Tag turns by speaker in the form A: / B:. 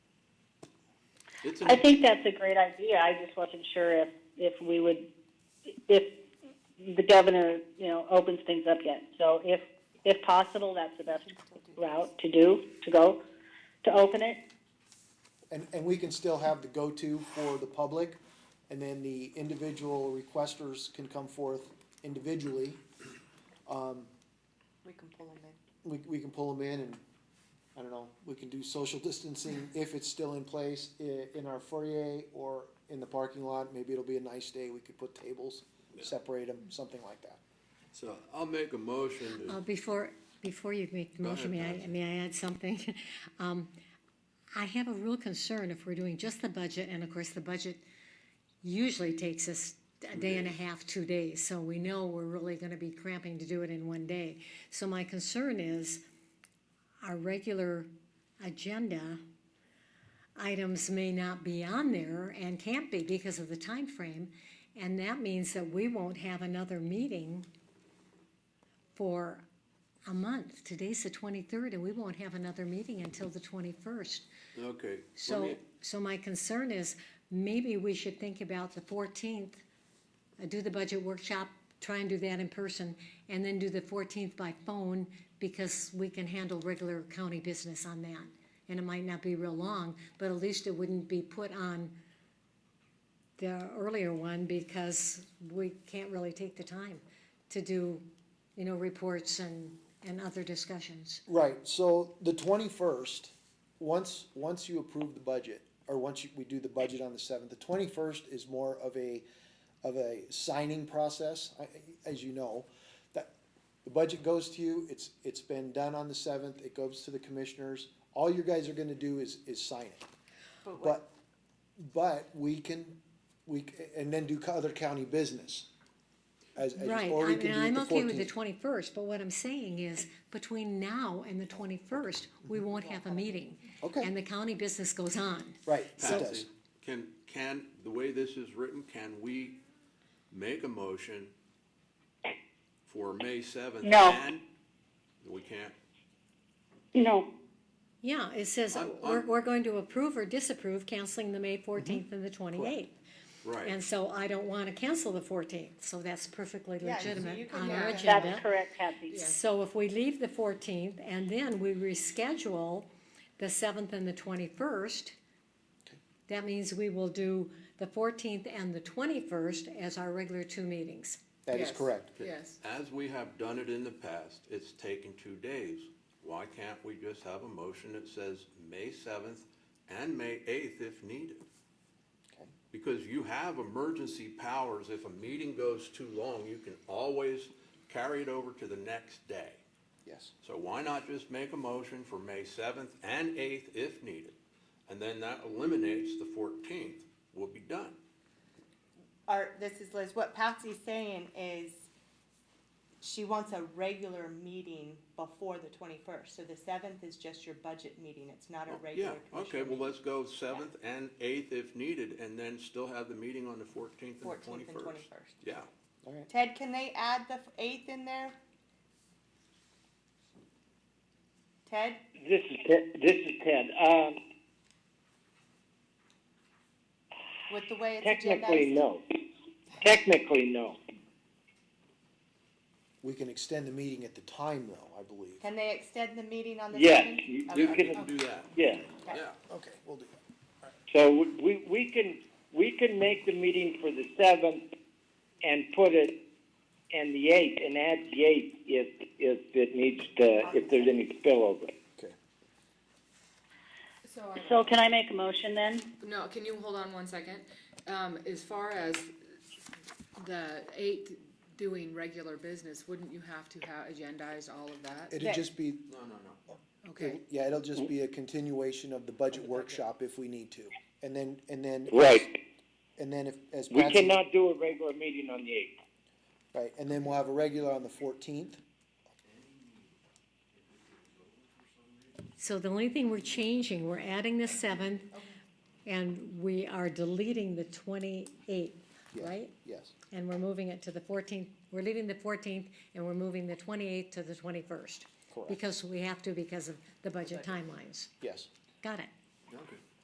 A: It's
B: I
A: an,
B: think that's a great idea. I just wasn't sure if, if we would, if the governor, you know, opens things up yet. So if, if possible, that's the best route to do, to go, to open it.
C: And, and we can still have the go-to for the public, and then the individual requesters can come forth individually. Um,
D: We can pull them in.
C: we, we can pull them in and, I don't know, we can do social distancing if it's still in place i- in our foyer or in the parking lot, maybe it'll be a nice day, we could put tables, separate them, something like that.
A: so I'll make a motion
E: Uh,
A: to,
E: Before, before you make the
A: Go
E: motion,
A: ahead,
E: may I, may I add something? Um, I have a real concern if we're doing just the budget, and of course, the budget usually takes us a day and a half, two days, so we know we're really gonna be cramping to do it in one day. So my concern is our regular agenda items may not be on there and can't be because of the time frame, and that means that we won't have another meeting for a month. Today's the twenty-third, and we won't have another meeting until the twenty-first.
A: okay. let
E: So,
A: me-
E: so my concern is, maybe we should think about the fourteenth, uh, do the budget workshop, try and do that in person, and then do the fourteenth by phone, because we can handle regular county business on that. And it might not be real long, but at least it wouldn't be put on the earlier one, because we can't really take the time to do, you know, reports and, and other discussions.
C: Right, so the twenty-first, once, once you approve the budget, or once you, we do the budget on the seventh, the twenty-first is more of a, of a signing process, I- I- as you know. That, the budget goes to you, it's, it's been done on the seventh, it goes to the commissioners, all you guys are gonna do is, is sign it.
D: But what,
C: But, but we can, we, c- and then do co- other county business. As, as,
E: Right,
C: or
E: I
C: we uh, can
E: mean,
C: do it
E: I'm
C: the
E: okay with the
C: fourteenth.
E: twenty-first, but what I'm saying is, between now and the twenty-first, we won't have a meeting.
C: Mm-hmm. Okay.
E: And the county business goes on.
C: Right, it does.
A: Patsy, can, can, the way this is written, can we make a motion for May seventh?
B: No.
A: We can't.
B: No,
E: Yeah, it says, uh,
A: I'm-
E: we're,
A: I'm-
E: we're going to approve or disapprove canceling the May
C: Mm-hmm.
E: fourteenth and the twenty-eighth. And
A: Right.
E: so I don't wanna cancel the fourteenth, so that's perfectly
D: Yeah, so you
E: legitimate
D: can
E: on
D: do
E: our
D: that.
E: agenda.
B: that's correct, Kathy.
E: So if we leave the fourteenth and then we reschedule the seventh and the twenty-first, that means we will do the fourteenth and the twenty-first as our regular two meetings.
C: That is
D: Yes.
C: correct.
D: yes,
A: As we have done it in the past, it's taken two days. Why can't we just have a motion that says May seventh and May eighth if needed?
C: Okay.
A: Because you have emergency powers. If a meeting goes too long, you can always carry it over to the next day.
C: Yes.
A: So why not just make a motion for May seventh and eighth if needed? And then that eliminates the fourteenth, we'll be done.
D: our, this is Liz, what Patsy's saying is she wants a regular meeting before the twenty-first, so the seventh is just your budget meeting, it's not a
A: Oh, Yeah,
D: regular
A: okay,
D: commission
A: well,
D: meeting.
A: let's go seventh and eighth if needed, and then still have the meeting on the fourteenth and
D: 14th and
A: twenty-first.
D: 21st.
A: Yeah,
D: Ted, can they add the eighth in there? Ted,
F: This is Ted. This is Ted. Um,
D: with the way it's
F: technically,
D: agendized?
F: no. Technically, no.
C: We can extend the meeting at the time though, I believe.
D: Can they extend the meeting on the
F: Yes,
D: seventh?
F: you-
A: yeah,
F: you
D: Okay.
A: we
F: can-
A: can do that,
F: Yeah.
A: yeah.
C: Okay, we'll do that.
F: So we we can we can make the meeting for the seventh and put it and the eighth and add the eighth if if it needs to if there's any spillover.
C: Okay.
G: So, I-
B: So can I make a motion then?
G: no, can you hold on one second? Um, as far as the eight doing regular business, wouldn't you have to have agendized all of that?
C: It'd just be, Oh.
A: No, no, no.
G: Okay,
C: yeah, it'll just be a continuation of the budget workshop if we need to. And then, and then.
F: Right.
C: And then if, as
F: We
C: Patsy.
F: cannot do a regular meeting on the eighth.
C: Right, and then we'll have a regular on the fourteenth.
E: So the only thing we're changing, we're adding the seventh and we are deleting the twenty-eighth, right?
C: Yes.
E: And we're moving it to the fourteenth, we're leaving the fourteenth and we're moving the twenty-eighth to the twenty-first.
C: Correct.
E: Because we have to because of the budget timelines.
C: Yes.
E: Got it.
A: Okay.